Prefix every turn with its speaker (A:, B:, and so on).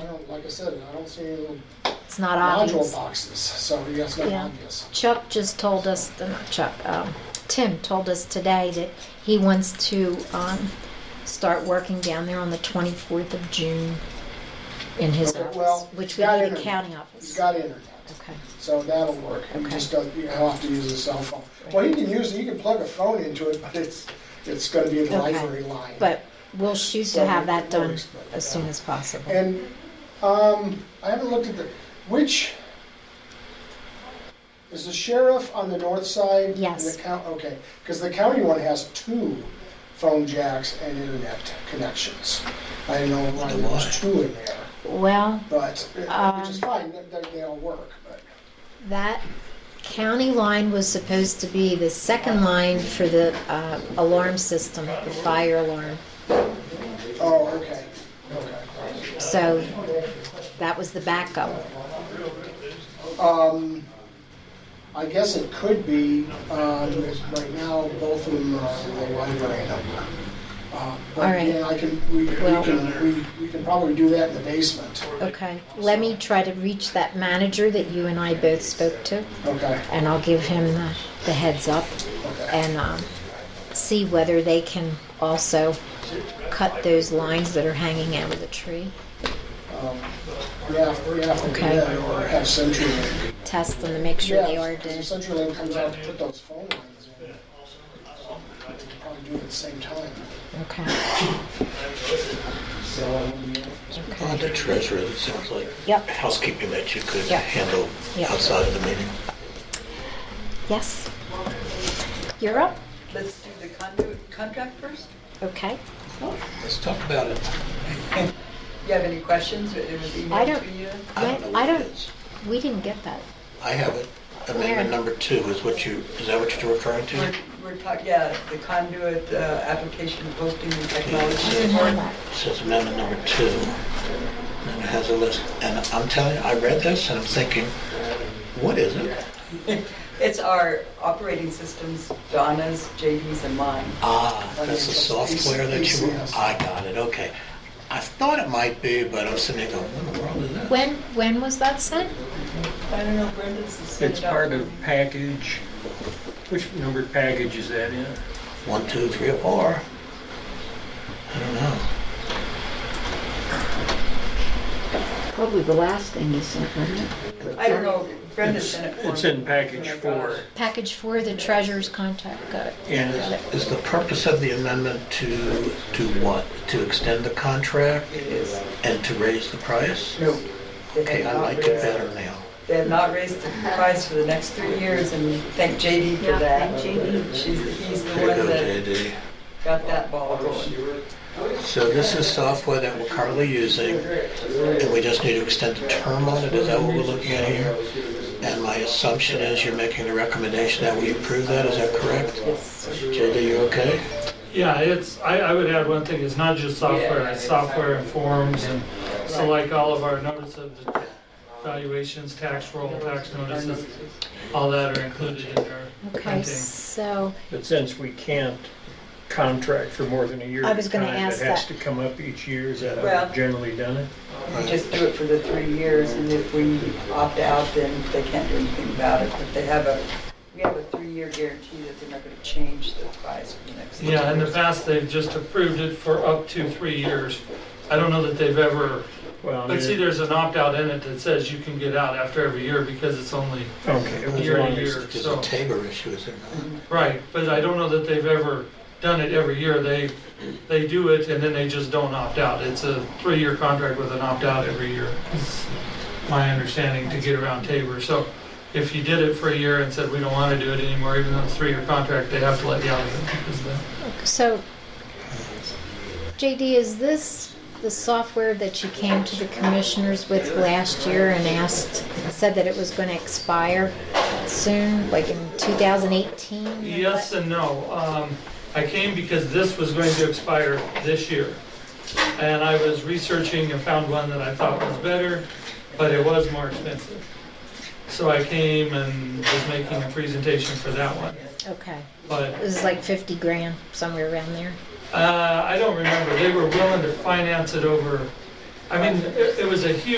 A: I don't, like I said, I don't see any little
B: It's not
A: module
B: obvious.
A: boxes, so yeah, it's not
B: Yeah.
A: obvious.
B: Chuck just told us, uh, not Chuck, um, Tim told us today that he wants to um, start working down there on the 24th of June in his
A: Okay,
B: office,
A: well,
B: which
A: he's
B: would
A: got
B: be the
A: internet.
B: county
A: He's
B: office.
A: got internet,
B: Okay.
A: so that'll work. He
B: Okay.
A: just doesn't, he'll have to use his cell phone. Well, he can use, he can plug a phone into it, but it's, it's gonna be the
B: Okay.
A: library line.
B: But we'll shoot
A: So
B: to have
A: it
B: that done
A: works, but,
B: as
A: yeah.
B: soon as possible.
A: And, um, I haven't looked at the, which, is the sheriff on the north side? and
B: Yes.
A: the coun- Okay, because the county one has two phone jacks and internet connections. I don't know why there was two in there,
B: Well,
A: but, uh,
B: Um,
A: which is fine, they- they, they all work, but.
B: that county line was supposed to be the second line for the uh, alarm system, the fire alarm.
A: Oh, okay, okay.
B: So that was the backup.
A: Um, I guess it could be, um, right now, both of them are in the library number. Uh,
B: All
A: But
B: right.
A: yeah, I can, we, we
B: Well-
A: can, we, we can probably do that in the basement.
B: Okay, let me try to reach that manager that you and I both spoke to,
A: Okay,
B: and I'll give him the, the heads up
A: okay.
B: and um, see whether they can also cut those lines that are hanging out of the tree.
A: Um, Yeah, we have to do
B: Okay.
A: that or have CenturyLink.
B: Test them to make sure they
A: Yeah,
B: are
A: 'cause
B: dead.
A: If CenturyLink comes out to put those phone lines in, um, we can probably do it at the same time.
B: Okay,
A: So, um,
C: On
B: okay.
C: the treasurer, it sounds like
B: Yep,
C: housekeeping that you could
B: Yep.
C: handle
B: Yep.
C: outside of the meeting.
B: yes. You're up?
D: Let's do the conduit contract first.
B: Okay.
C: Let's talk about it.
D: You have any questions? It was
B: I
D: emailed
B: don't-
D: to you.
C: I don't know
B: I
C: what it
B: don't-
C: is.
B: We didn't get that.
C: I have it.
B: Where?
C: Amendment number two is what you, is that what you're referring
D: We're,
C: to?
D: we're talking, yeah, the conduit uh, application posting and
B: I didn't
D: technology.
B: have that.
C: It Says amendment number two. And it has a list. And I'm telling you, I read this and I'm thinking, what is it?
D: It's our operating systems, Donna's, JD's, and mine.
C: Ah, that's the
A: Financial AC-
C: software that you,
A: ACS.
C: I got it, okay. I thought it might be, but I was sitting there going, what in the world is that?
B: When, when was that sent?
D: I don't know, Brenda, this is.
E: It's part of package, which numbered package is that in?
C: One, two, three, or four? I don't know.
F: Probably the last thing you sent, wasn't it?
D: I don't know, Brenda
E: It's
D: sent it for
E: it's
D: me.
E: in package
D: Oh my
E: four,
D: gosh.
B: Package for the treasurer's contact, got it.
E: and it's-
C: Is the purpose of the amendment to, to what? To extend the contract
D: It is.
C: and to raise the price?
D: No. they have
C: Okay, I
D: not
C: like it
D: raised-
C: better now.
D: They have not raised the price for the next three years, and thank JD for
F: Yeah,
D: that.
F: thank JD.
D: She's, he's the
C: There you
D: one
C: go,
D: that
C: JD.
D: got that ball rolling.
C: So this is software that we're currently using, and we just need to extend the term on it, is that what we're looking at here? And my assumption is you're making the recommendation that we approve that, is that correct?
D: Yes.
C: JD, you okay?
G: Yeah, it's, I, I would add one thing, it's not just software, it's software and forms, and so like all of our notice of valuations, tax roll, tax notices, all that are included in there.
B: Okay, so,
E: but since we can't contract for more than a year
B: I
E: at
B: was
E: a
B: gonna
E: time,
B: ask
E: it has
B: that.
E: to come up each year, is that how
D: Well-
E: we've generally done it?
D: We just do it for the three years, and if we opt out, then they can't do anything about it. But they have a, we have a three-year guarantee that they're not going to change the price for the next. three
G: Yeah, in the
D: years.
G: past, they've just approved it for up to three years. I don't know that they've ever,
E: Well, I
G: but
E: mean,
G: see, there's an opt-out in it that says you can get out after every year because it's only,
E: Okay, as
G: year to
E: long as-
G: year.
C: There's a Tabor issue, is there not?
G: right, but I don't know that they've ever done it every year. They, they do it and then they just don't opt out. It's a three-year contract with an opt-out every year. It's my understanding to get around Tabor. So if you did it for a year and said, we don't want to do it anymore, even though it's a three-year contract, they have to let you out of it. Is that-
B: so, JD, is this the software that you came to the commissioners with last year and asked, said that it was gonna expire soon, like in 2018? or
G: Yes
B: what?
G: and no. Um, I came because this was going to expire this year. And I was researching and found one that I thought was better, but it was more expensive. So I came and was making a presentation for that one.
B: Okay,
G: But
B: it was like 50 grand, somewhere around there.
G: uh, I don't remember. They were willing to finance it over I mean, it it was a huge